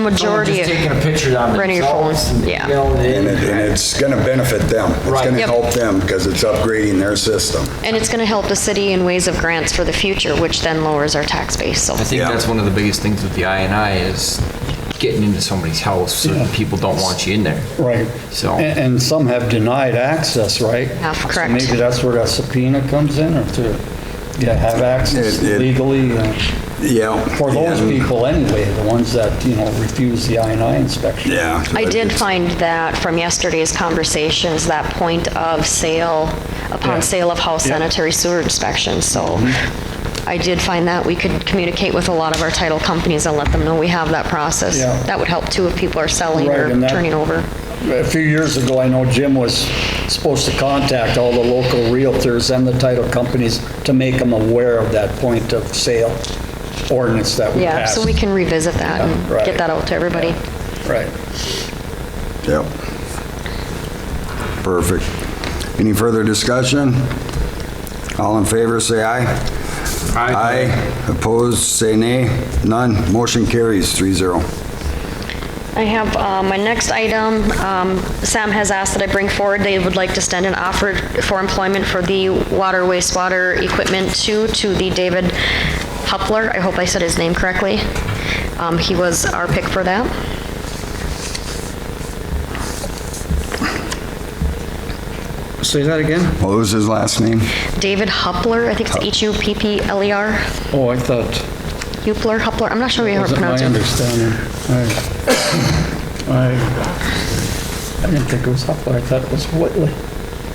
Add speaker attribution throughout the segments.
Speaker 1: majority
Speaker 2: Just taking a
Speaker 1: of,
Speaker 2: picture on
Speaker 1: Running your
Speaker 2: themselves
Speaker 1: phones,
Speaker 2: and, you
Speaker 1: yeah.
Speaker 2: know,
Speaker 3: And it- and
Speaker 2: they-
Speaker 3: it's going to benefit them. It's
Speaker 2: Right.
Speaker 3: going to
Speaker 2: Yep.
Speaker 3: help them because it's upgrading their system.
Speaker 1: and it's going to help the city in ways of grants for the future, which then lowers our tax base, so.
Speaker 4: I think
Speaker 3: Yeah.
Speaker 4: that's one of the biggest things with the INI is getting into somebody's house, so
Speaker 5: Yeah.
Speaker 4: people don't want you in there.
Speaker 5: Right.
Speaker 4: So-
Speaker 5: And and some have denied access, right?
Speaker 1: Yeah,
Speaker 5: So
Speaker 1: correct.
Speaker 5: Maybe that's where that subpoena comes in, or to yeah, have access
Speaker 3: It- it-
Speaker 5: legally, uh,
Speaker 3: Yeah.
Speaker 5: for those
Speaker 3: and-
Speaker 5: people anyway, the ones that, you know, refuse the INI inspection.
Speaker 3: Yeah.
Speaker 1: I did find that from yesterday's conversations, that point of sale,
Speaker 5: Yeah.
Speaker 1: upon sale of house
Speaker 5: Yeah.
Speaker 1: sanitary sewer inspection, so I did find that we could communicate with a lot of our title companies and let them know we have that process.
Speaker 5: Yeah.
Speaker 1: That would help too if people are selling
Speaker 5: Right,
Speaker 1: or
Speaker 5: and that-
Speaker 1: turning over.
Speaker 5: A few years ago, I know Jim was supposed to contact all the local realtors and the title companies to make them aware of that point of sale ordinance that we
Speaker 1: Yeah,
Speaker 5: passed.
Speaker 1: so we can revisit that
Speaker 5: Yeah,
Speaker 1: and
Speaker 5: right.
Speaker 1: get that out to everybody.
Speaker 5: Right.
Speaker 3: Yep. Perfect. Any further discussion? All in favor, say aye.
Speaker 2: Aye.
Speaker 3: Aye. Opposed, say nay. None. Motion carries three zero.
Speaker 1: I have, uh, my next item, um, Sam has asked that I bring forward, they would like to extend an offer for employment for the water wastewater equipment two to the David Hupler, I hope I said his name correctly. Um, He was our pick for that.
Speaker 5: Say that again?
Speaker 3: What was his last name?
Speaker 1: David Hupler, I think it's H-U-P-P-L-E-R,
Speaker 5: Oh, I thought,
Speaker 1: Hupler, Hupler, I'm not sure how to
Speaker 5: wasn't my
Speaker 1: pronounce it.
Speaker 5: understanding. I, I I didn't think it was Hupler, I thought it was Whitley,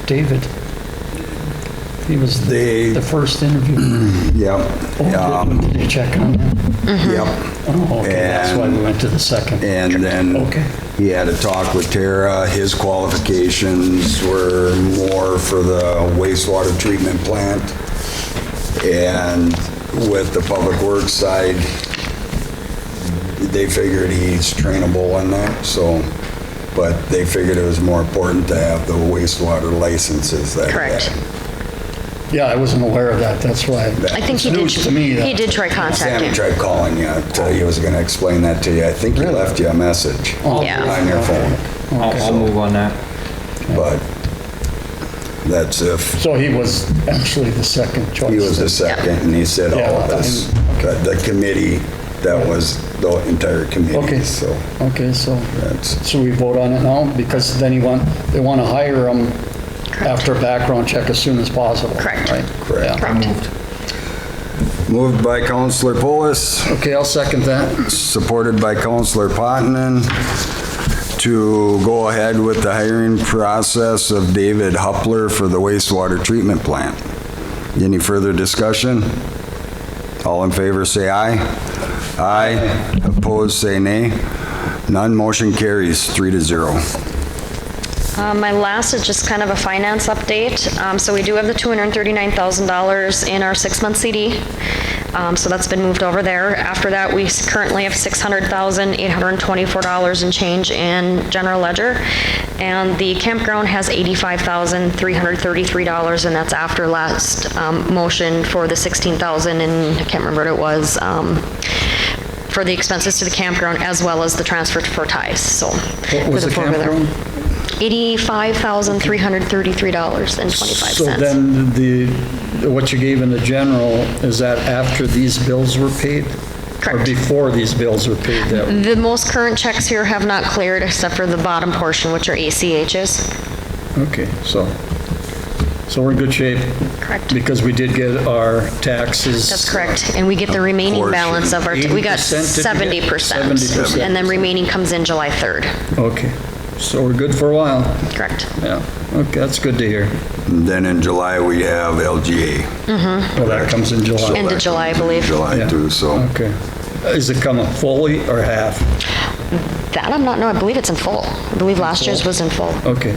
Speaker 5: David. He was
Speaker 3: They-
Speaker 5: the the first interview.
Speaker 3: Yep.
Speaker 5: Oh,
Speaker 3: Um,
Speaker 5: Did did you check on him?
Speaker 3: Yep.
Speaker 5: Oh, okay, that's why we went to the second.
Speaker 3: And then
Speaker 5: Okay.
Speaker 3: he had a talk with Tara. His qualifications were more for the wastewater treatment plant. And with the public works side, they figured he's trainable in that, so, but they figured it was more important to have the wastewater licenses that.
Speaker 1: Correct.
Speaker 5: Yeah, I wasn't aware of that, that's why.
Speaker 1: I think he
Speaker 5: It's
Speaker 1: did,
Speaker 5: news to me, that-
Speaker 1: he did try
Speaker 3: Sammy
Speaker 1: contacting.
Speaker 3: tried calling you. uh, He was gonna explain that to you. I think he left you a message.
Speaker 1: Yeah.
Speaker 3: On your phone.
Speaker 4: I'll, I'll move on that.
Speaker 3: but that's if
Speaker 5: So he was actually the second choice.
Speaker 3: he was the second, and he said all of
Speaker 5: Yeah.
Speaker 3: this. But The committee, that was the entire committee,
Speaker 5: Okay.
Speaker 3: so
Speaker 5: Okay, so,
Speaker 3: that's,
Speaker 5: so we vote on it now, because then he want, they want to hire him after a background check as soon as possible.
Speaker 1: Correct.
Speaker 5: right?
Speaker 3: Correct.
Speaker 5: Yeah.
Speaker 1: Correct.
Speaker 3: moved by Counselor Polis,
Speaker 5: Okay, I'll second that.
Speaker 3: supported by Counselor Potenon, to go ahead with the hiring process of David Hupler for the wastewater treatment plant. Any further discussion? All in favor, say aye. Aye. Opposed, say nay. None, motion carries, three to zero.
Speaker 1: Um, My last is just kind of a finance update. Um, So we do have the $239,000 in our six-month CD, Um, so that's been moved over there. After that, we s- currently have $600,824 in change in general ledger, and the campground has $85,333, and that's after last um, motion for the $16,000, and I can't remember what it was, um, for the expenses to the campground, as well as the transfer for ties, so.
Speaker 5: What was
Speaker 1: for
Speaker 5: the
Speaker 1: four wheeler.
Speaker 5: campground?
Speaker 1: $85,333.25.
Speaker 5: So then the, what you gave in the general, is that after these bills were paid? Or
Speaker 1: Correct.
Speaker 5: before these bills were paid? that-
Speaker 1: The most current checks here have not cleared except for the bottom portion, which are ACHs.
Speaker 5: Okay, so, so we're in good shape?
Speaker 1: Correct.
Speaker 5: Because we did get our taxes.
Speaker 1: That's correct. And we get the remaining
Speaker 3: Portion.
Speaker 1: balance of our, we got
Speaker 5: 80%, did we get?
Speaker 1: 70%.
Speaker 5: 70%.
Speaker 1: And then remaining comes in July 3rd.
Speaker 5: Okay, so we're good for a while?
Speaker 1: Correct.
Speaker 5: Yeah, okay, that's good to hear.
Speaker 3: And Then in July, we have LGA.
Speaker 5: Well, Oh, that comes in July.
Speaker 1: End of July, I believe.
Speaker 3: July
Speaker 5: Yeah.
Speaker 3: too, so
Speaker 5: Okay. Is it coming fully or half?
Speaker 1: That I'm not, no, I believe it's in full. I believe last year's was in full.
Speaker 5: Okay.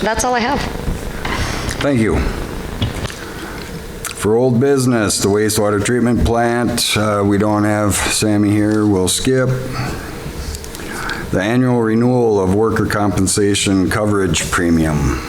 Speaker 1: That's all I have.
Speaker 3: thank you. For old business, the wastewater treatment plant, uh, we don't have Sammy here, we'll skip. The annual renewal of worker compensation coverage premium.